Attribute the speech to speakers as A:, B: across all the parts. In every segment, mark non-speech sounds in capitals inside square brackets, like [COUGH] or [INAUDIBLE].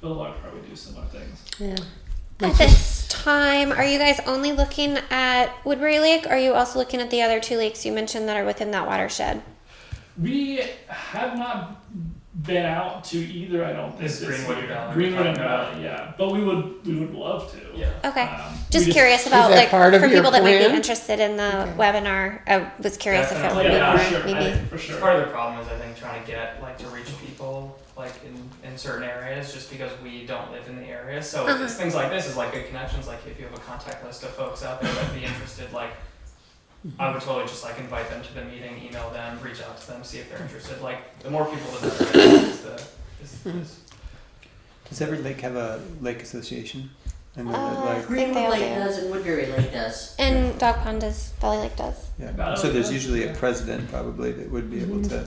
A: Bill will probably do similar things.
B: Yeah.
C: At this time, are you guys only looking at Woodbury Lake? Or are you also looking at the other two lakes you mentioned that are within that watershed?
A: We have not been out to either. I don't think
D: This Greenwood
A: year.
D: Valley we're
A: Greenwood and
D: talking about.
A: Valley, yeah. But we would we would love to.
D: Yeah.
C: Okay.
B: Uh,
A: Um, we
C: just, curious about
B: that
C: like
B: part of
C: for
B: your
C: people that might be
B: plan?
C: interested in the
B: Okay.
C: webinar. I was curious if it
D: Definitely.
C: would be
A: Yeah,
C: more,
A: for sure. I
C: maybe.
A: think for
D: It's
A: sure.
D: part of the problem is I think trying to get like to reach people like in, in certain areas just because we don't live in the area. So
C: Uh-huh.
D: it's things like this is like good connections. Like if you have a contact list of folks out there that'd be interested, like I would totally just like invite them to the meeting, email them, reach out to them, see if they're interested. Like the more people, the better. is the, is, is,
E: Does every lake have a lake association? And then
C: Uh,
E: like,
C: think they all
F: Greenwood Lake
C: do.
F: does and Woodbury Lake does.
C: And Dog Pond does, Valley Lake does.
E: yeah. So there's usually a president probably that would be able to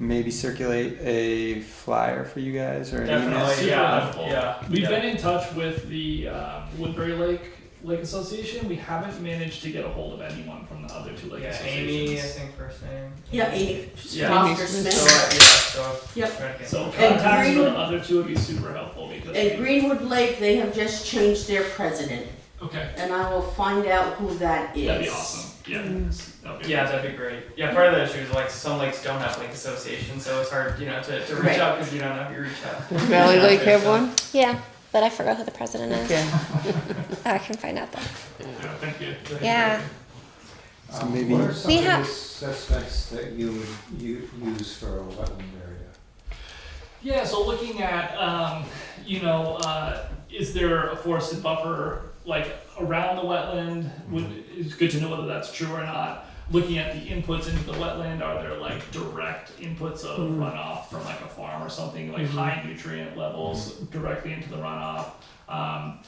E: maybe circulate a flyer for you guys or an email.
D: definitely,
A: Super
D: yeah,
A: helpful.
D: yeah.
A: We've
D: yeah.
A: been in touch with the uh, Woodbury Lake Lake Association. We haven't managed to get a hold of anyone from the other two lake
D: yeah,
A: associations.
D: Amy, I think first name.
F: Yeah, Amy
A: Yeah.
F: Foster
D: So
F: Smith.
D: uh, yeah, so
F: Yep.
D: try to get-
A: So
F: And
A: contacts for
F: Greenwood-
A: the other two would be super helpful because.
F: At Greenwood Lake, they have just changed their president,
A: okay.
F: and I will find out who that is.
A: That'd be awesome. Yeah.
C: Mm.
A: That'd be
D: Yeah, that'd be great. Yeah, part of the issue is like some lakes don't have lake associations, so it's hard, you know, to, to reach
F: Right.
D: out because you don't know if you reach
B: [LAUGHS]
D: out.
B: Valley Lake have one?
C: Yeah, but I forgot who the president is. Oh,
B: Okay.
C: I can find out though.
A: Yeah, Thank you.
C: Yeah.
E: So
G: Um,
E: maybe-
G: What are
C: We
G: some of
C: have-
G: the suspects that you would u- use for a wetland area?
A: Yeah, so looking at, um, you know, uh, is there a forested buffer like around the wetland? Would, it's good to know whether that's true or not. Looking at the inputs into the wetland, are there like direct inputs of runoff from like a farm or something, like high nutrient levels directly into the runoff? Um,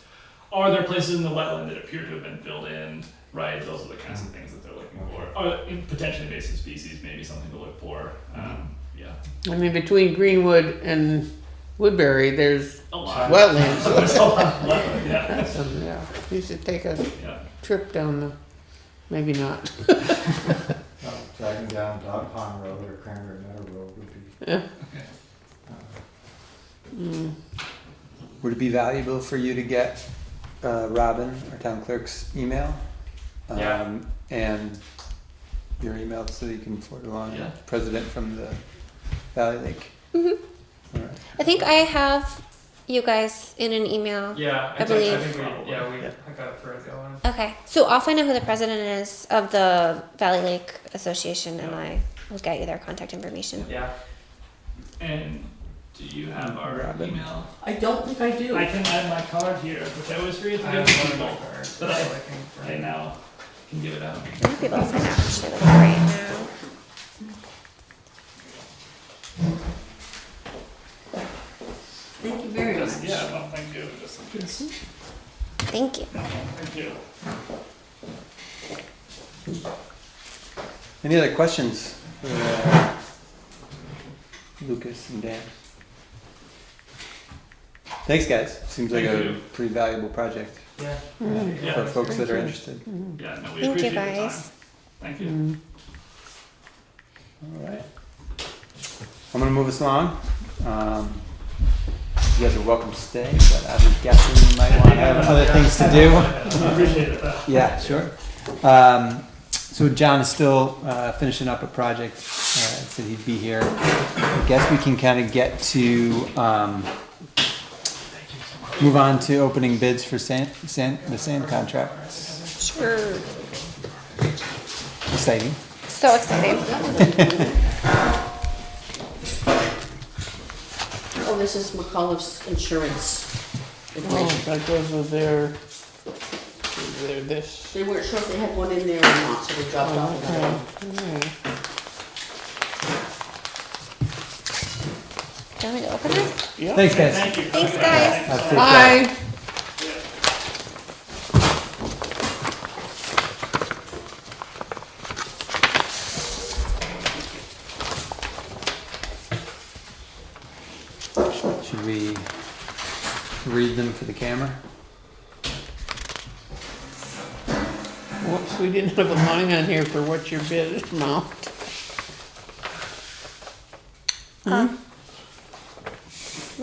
A: are there places in the wetland that appear to have been filled in? Right, those are the kinds of things that they're looking for. Or in potentially invasive species, maybe something to look for. Um, yeah,
B: I mean, between Greenwood and Woodbury, there's
A: a lot. [LAUGHS]
B: wetlands.
A: There's a lot of wetland, Oh, yeah.
B: So, yeah, you should take a
A: Yeah.
B: trip down the. Maybe not.
G: Uh, Driving down Dog Pond Road or Cranberry Meadow Road would be.
B: Yeah.
G: [LAUGHS] Uh,
B: Mm.
E: Would it be valuable for you to get uh, Robin, our town clerk's email? Um,
D: Yeah.
E: And your email so that you can forward along
A: Yeah.
E: president from the Valley Lake? All right.
C: I think I have you guys in an email.
D: Yeah, I,
C: I
D: think,
C: believe-
D: I think we, yeah, we
E: Yeah.
D: I got it for a going.
C: Okay, so I'll find out who the president is of the Valley Lake Association and I will get you their contact information.
D: Yeah,
A: And do you have our
E: Robin.
A: email?
F: I don't think I do.
A: I can add my card here, which I always forget
D: I
A: to give
D: have one
A: people.
D: of my cards, so
A: But
D: I
A: I, I
D: can.
A: now can give it out.
C: I might be able to find out actually like right now.
F: Thank you very
A: Just,
F: much.
A: yeah, well, thank you. Just in case.
C: Thank you.
A: Thank you.
E: Any other questions for uh, Lucas and Dan? Thanks, guys. Seems like
A: Thank
E: a
A: you.
E: pretty valuable project
D: Yeah.
A: Yeah.
E: for folks that are interested.
A: Yeah, no, we
C: Thank you
A: appreciate your
C: guys. Mm.
A: time. Thank you.
E: All right. I'm gonna move us along. Um, you guys are welcome to stay, but I'm guessing you might want to have other things to do.
A: [LAUGHS] I appreciate it. though.
E: Yeah, sure. Um, so John is still uh, finishing up a project. Uh, said he'd be here. I guess we can kind of get to um, move on to opening bids for sand, sand, the sand contracts.
C: Sure.
E: Exciting.
C: So excited.
F: Uh, Oh, this is McCullough's insurance.
B: Oh,
F: information.
B: that goes with their. Their this.
F: They weren't sure if they had one in there or not, so they dropped off another one.
B: Okay.
C: Do you want me to open this?
B: Yeah.
E: Thanks, guys.
A: Thank you.
C: Thanks, guys.
E: Have a safe drive.
B: Bye.
E: Should we read them for the camera?
B: Whoops, we didn't have a line on here for what your bid amount.
C: Um,